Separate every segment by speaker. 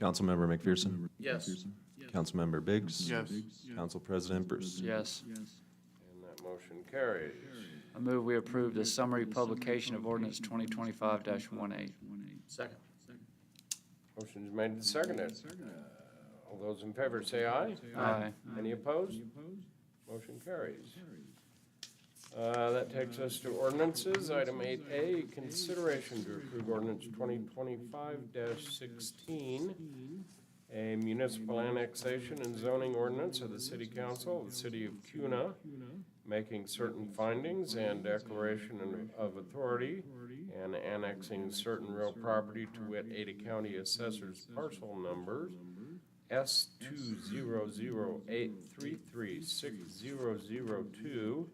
Speaker 1: Councilmember McPherson?
Speaker 2: Yes.
Speaker 1: Councilmember Biggs?
Speaker 3: Yes.
Speaker 1: Council President Bruce?
Speaker 2: Yes.
Speaker 4: And that motion carries.
Speaker 2: I move we approve the summary publication of ordinance twenty twenty-five 18 Second.
Speaker 4: Motion's made and seconded. Uh, All those in favor say aye.
Speaker 2: Aye.
Speaker 4: Any opposed? Motion carries. Uh, That takes us to ordinances. Item eight A, consideration to approve ordinance twenty twenty-five sixteen, a municipal annexation and zoning ordinance of the city council of the city of Cuna, making certain findings and declaration and- of authority and annexing certain real property to wit Ada County Assessor's parcel numbers S two zero zero eight three three six zero zero two,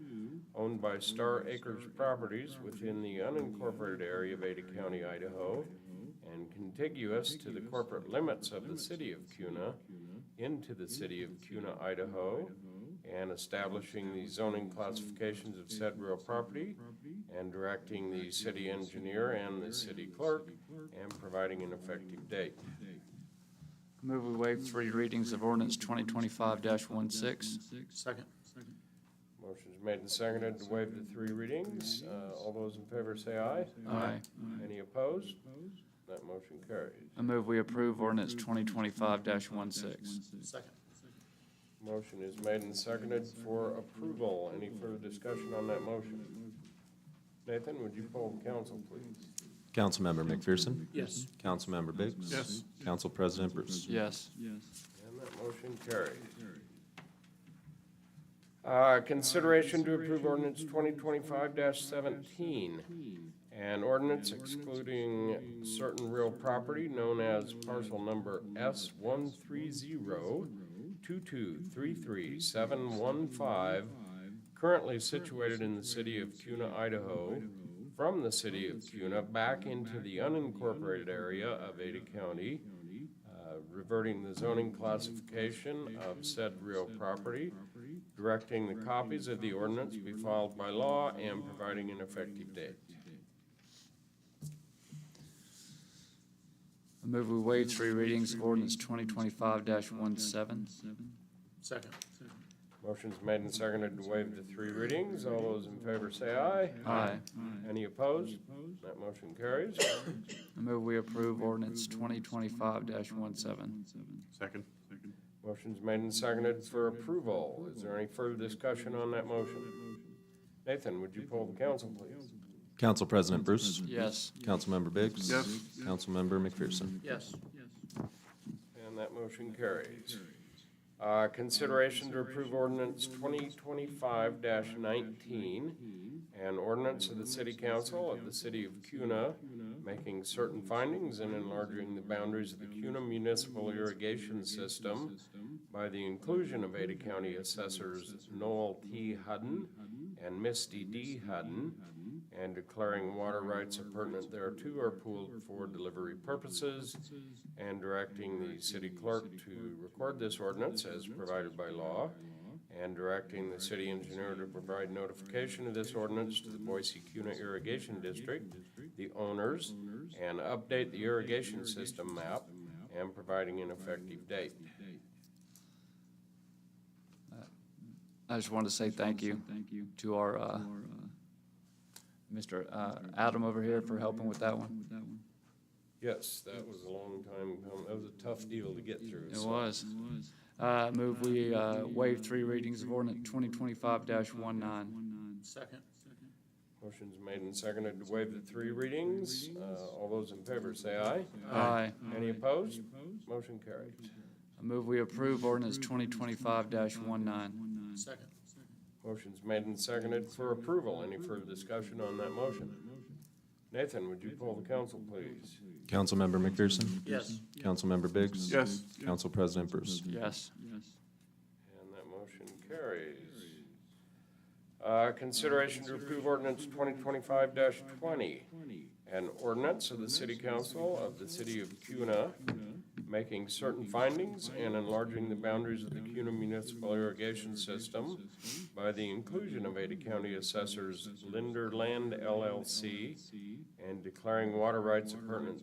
Speaker 4: owned by Star Acres Properties within the unincorporated area of Ada County, Idaho, and contiguous to the corporate limits of the city of Cuna, into the city of Cuna, Idaho, and establishing the zoning classifications of said real property, and directing the city engineer and the city clerk, and providing an effective date.
Speaker 2: I move we waive three readings of ordinance twenty twenty-five 16 Second.
Speaker 4: Motion's made and seconded to waive the three readings. Uh, All those in favor say aye.
Speaker 2: Aye.
Speaker 4: Any opposed? That motion carries.
Speaker 2: I move we approve ordinance twenty twenty-five 16
Speaker 4: Motion is made and seconded for approval. Any further discussion on that motion? Nathan, would you poll the council, please?
Speaker 1: Councilmember McPherson?
Speaker 2: Yes.
Speaker 1: Councilmember Biggs?
Speaker 3: Yes.
Speaker 1: Council President Bruce?
Speaker 2: Yes.
Speaker 4: And that motion carries. Uh, Consideration to approve ordinance twenty twenty-five seventeen. An ordinance excluding certain real property known as parcel number S one three zero two two three three seven one five, currently situated in the city of Cuna, Idaho, from the city of Cuna back into the unincorporated area of Ada County, uh, reverting the zoning classification of said real property, directing the copies of the ordinance be filed by law, and providing an effective date.
Speaker 2: I move we waive three readings of ordinance twenty twenty-five 17
Speaker 5: Second.
Speaker 4: Motion's made and seconded to waive the three readings. All those in favor say aye.
Speaker 2: Aye.
Speaker 4: Any opposed? That motion carries.
Speaker 2: I move we approve ordinance twenty twenty-five 17
Speaker 3: Second.
Speaker 4: Motion's made and seconded for approval. Is there any further discussion on that motion? Nathan, would you poll the council, please?
Speaker 1: Council President Bruce?
Speaker 2: Yes.
Speaker 1: Councilmember Biggs?
Speaker 3: Yes.
Speaker 1: Councilmember McPherson?
Speaker 5: Yes.
Speaker 4: And that motion carries. Uh, Consideration to approve ordinance twenty twenty-five nineteen, an ordinance of the city council of the city of Cuna, making certain findings and enlarging the boundaries of the Cuna municipal irrigation system by the inclusion of Ada County assessors Noel T. Hudden and Misty D. Hudden, and declaring water rights appurtenant thereto are pooled for delivery purposes, and directing the city clerk to record this ordinance as provided by law, and directing the city engineer to provide notification of this ordinance to the Boise Cuna Irrigation District, the owners, and update the irrigation system map, and providing an effective date.
Speaker 2: I just wanted to say thank you to our, uh, Mr. uh, Adam over here for helping with that one.
Speaker 4: Yes, that was a long time coming. That was a tough deal to get through.
Speaker 2: It
Speaker 4: so-
Speaker 2: was. Uh, move we, uh, waive three readings of ordinance twenty twenty-five 19
Speaker 5: Second.
Speaker 4: Motion's made and seconded to waive the three readings. Uh, All those in favor say aye.
Speaker 2: Aye.
Speaker 4: Any opposed? Motion carried.
Speaker 2: I move we approve ordinance twenty twenty-five 19
Speaker 5: Second.
Speaker 4: Motion's made and seconded for approval. Any further discussion on that motion? Nathan, would you poll the council, please?
Speaker 1: Councilmember McPherson?
Speaker 5: Yes.
Speaker 1: Councilmember Biggs?
Speaker 3: Yes.
Speaker 1: Council President Bruce?
Speaker 2: Yes.
Speaker 4: And that motion carries. Uh, Consideration to approve ordinance twenty twenty-five twenty, an ordinance of the city council of the city of Cuna, making certain findings and enlarging the boundaries of the Cuna municipal irrigation system by the inclusion of Ada County assessors Linder Land LLC and declaring water rights appurtenant